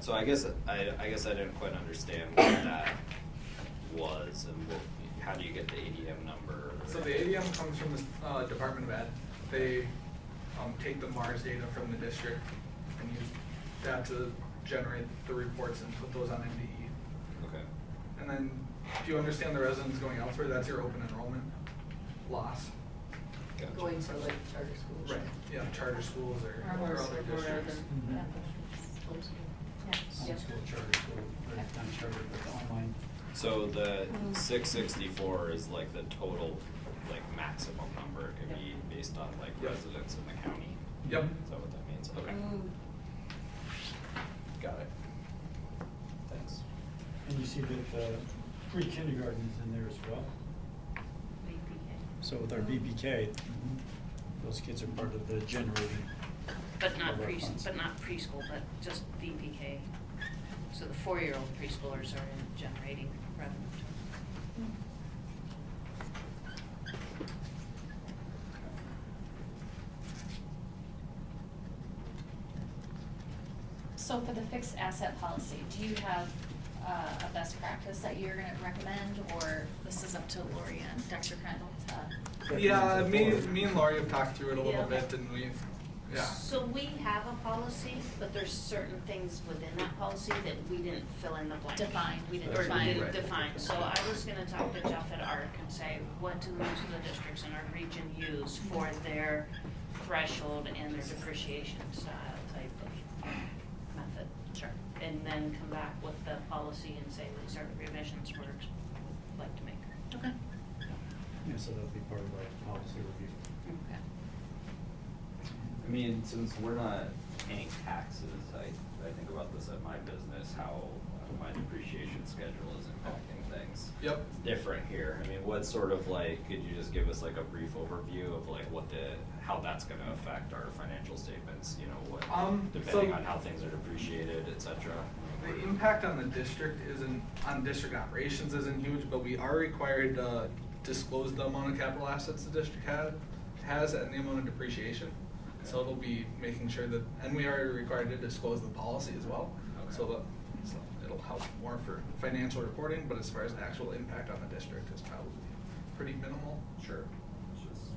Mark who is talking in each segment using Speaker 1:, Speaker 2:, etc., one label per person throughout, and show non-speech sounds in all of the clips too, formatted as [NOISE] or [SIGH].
Speaker 1: So I guess, I, I guess I didn't quite understand what that was and what, how do you get the ADM number?
Speaker 2: So the ADM comes from the uh, Department of Ed. They um, take the MARS data from the district and use that to generate the reports and put those on MDE.
Speaker 1: Okay,
Speaker 2: And then, do you understand the residents going elsewhere? That's your open enrollment loss.
Speaker 1: gotcha.
Speaker 3: Going to like charter schools.
Speaker 2: Right, yeah, charter schools or
Speaker 3: Or
Speaker 2: or
Speaker 3: more,
Speaker 2: other
Speaker 3: or other.
Speaker 2: districts.
Speaker 4: Mhm.
Speaker 3: Yeah.
Speaker 4: Homeschool charter school, or not charter, but online.
Speaker 1: So the six sixty-four is like the total, like maximum number, it could be based on like
Speaker 2: Yep.
Speaker 1: residents in the county?
Speaker 2: Yep.
Speaker 1: Is that what that means? Okay,
Speaker 5: Mm-hmm.
Speaker 3: Ooh.
Speaker 1: got it. Thanks.
Speaker 4: And you see that the pre-kindergarten is in there as well. So with our BPK, those kids are part of the generating.
Speaker 5: But not
Speaker 4: of our
Speaker 5: pre,
Speaker 4: funds.
Speaker 5: but not preschool, but just VPK. So the four-year-old preschoolers are in generating revenue.
Speaker 6: So for the fixed asset policy, do you have uh, a best practice that you're gonna recommend, or this is up to Lori and Dr. Crandall to?
Speaker 2: Yeah, me, me and Laurie have talked through it a little
Speaker 5: Yeah.
Speaker 2: bit and we, yeah.
Speaker 5: So we have a policy, but there's certain things within that policy that we didn't fill in the blank.
Speaker 6: Define.
Speaker 5: We didn't,
Speaker 1: That's
Speaker 5: or
Speaker 1: what
Speaker 5: we
Speaker 1: we
Speaker 5: didn't
Speaker 1: write.
Speaker 5: define. So I was gonna talk to Jeff at ARC and say, what do most of the districts in our region use for their threshold and their depreciation style type of method?
Speaker 6: Sure.
Speaker 5: and then come back with the policy and say, these are revisions we're, would like to make.
Speaker 6: Okay.
Speaker 4: Yeah, so that'll be part of our policy review.
Speaker 1: I mean, since we're not paying taxes, I, I think about this at my business, how uh, my depreciation schedule is impacting things.
Speaker 2: Yep.
Speaker 1: It's Different here, I mean, what sort of like, could you just give us like a brief overview of like what the, how that's gonna affect our financial statements, you know, what,
Speaker 2: Um, so-
Speaker 1: depending on how things are depreciated, et cetera?
Speaker 2: The impact on the district isn't, on district operations isn't huge, but we are required to disclose the amount of capital assets the district had, has and the amount of depreciation. So it'll be making sure that, and we are required to disclose the policy as well. So
Speaker 1: Okay.
Speaker 2: that, so it'll help more for financial reporting, but as far as actual impact on the district is probably pretty minimal.
Speaker 1: Sure. It's just-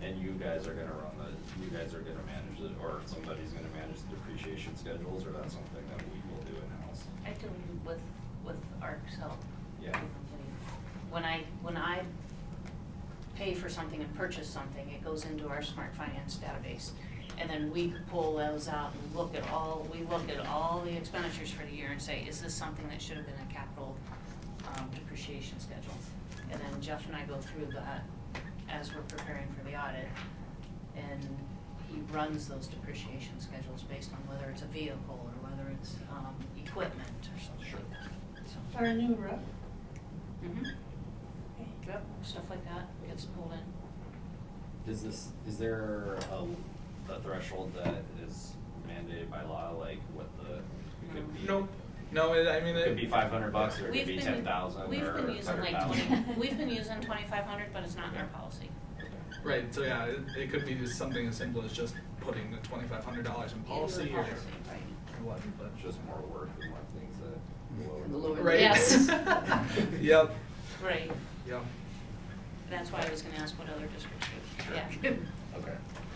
Speaker 1: And you guys are gonna run the, you guys are gonna manage it, or somebody's gonna manage the depreciation schedules, or that's something that we will do in-house?
Speaker 5: I do with, with ARC's help.
Speaker 1: Yeah.
Speaker 5: When I, when I pay for something and purchase something, it goes into our smart finance database. And then we pull those out and look at all, we look at all the expenditures for the year and say, is this something that should have been a capital um, depreciation schedule? And then Jeff and I go through that as we're preparing for the audit. And he runs those depreciation schedules based on whether it's a vehicle or whether it's um, equipment or something
Speaker 1: Sure.
Speaker 5: like that, so.
Speaker 7: Our new roof.
Speaker 5: Mhm. Yep, stuff like that gets pulled in.
Speaker 1: Is this, is there a, a threshold that is mandated by law, like what the, it could be?
Speaker 2: Nope, no, it- I mean,
Speaker 1: It
Speaker 2: it.
Speaker 1: could be five hundred bucks, or it
Speaker 5: We've
Speaker 1: could be
Speaker 5: been-
Speaker 1: ten thousand, or
Speaker 5: We've been using like
Speaker 1: 100,000. [LAUGHS]
Speaker 5: twenty, we've been using twenty-five hundred, but it's not in our policy.
Speaker 2: Right, so yeah, it, it could be just something as simple as just putting the twenty-five hundred dollars in
Speaker 5: Into the
Speaker 2: policy or.
Speaker 5: policy, right.
Speaker 2: or what, but-
Speaker 1: It's Just more work and more things that.
Speaker 3: The lower-
Speaker 2: Right.
Speaker 3: [LAUGHS]
Speaker 6: Yes.
Speaker 2: [LAUGHS] Yep,
Speaker 5: Right,
Speaker 2: yep.
Speaker 5: that's why I was gonna ask what other districts do, yeah.
Speaker 1: Okay. [LAUGHS]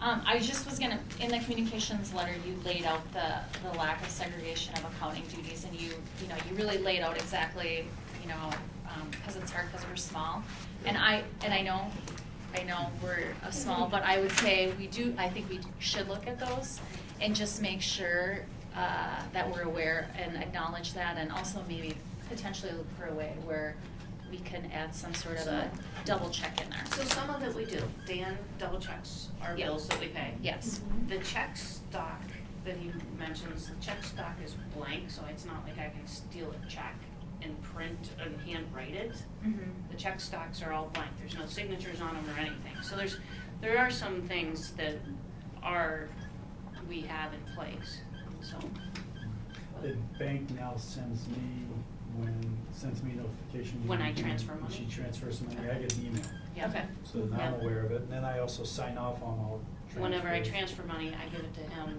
Speaker 6: Um, I just was gonna, in the communications letter, you laid out the, the lack of segregation of accounting duties, and you, you know, you really laid out exactly, you know, um, cause it's hard, cause we're small. And I, and I know, I know we're a small, but I would say we do, I think we should look at those and just make sure, uh, that we're aware and acknowledge that, and also maybe potentially look for a way where we can add some sort of a double check in there.
Speaker 5: So some of it we do, Dan double checks our
Speaker 6: Yeah.
Speaker 5: bills that we pay.
Speaker 6: Yes.
Speaker 5: The check stock that he mentions, the check stock is blank, so it's not like I can steal a check and print and handwrite it. The check stocks are all blank, there's no signatures on them or anything. So there's, there are some things that are, we have in place, so.
Speaker 4: The bank now sends me, when, sends me notification.
Speaker 5: When I
Speaker 4: when
Speaker 5: transfer money?
Speaker 4: She transfers money, I get an email,
Speaker 5: Yeah.
Speaker 6: Okay.
Speaker 4: so then I'm
Speaker 5: Yeah.
Speaker 4: aware of it, and then I also sign off on all transfers.
Speaker 5: Whenever I transfer money, I give it to him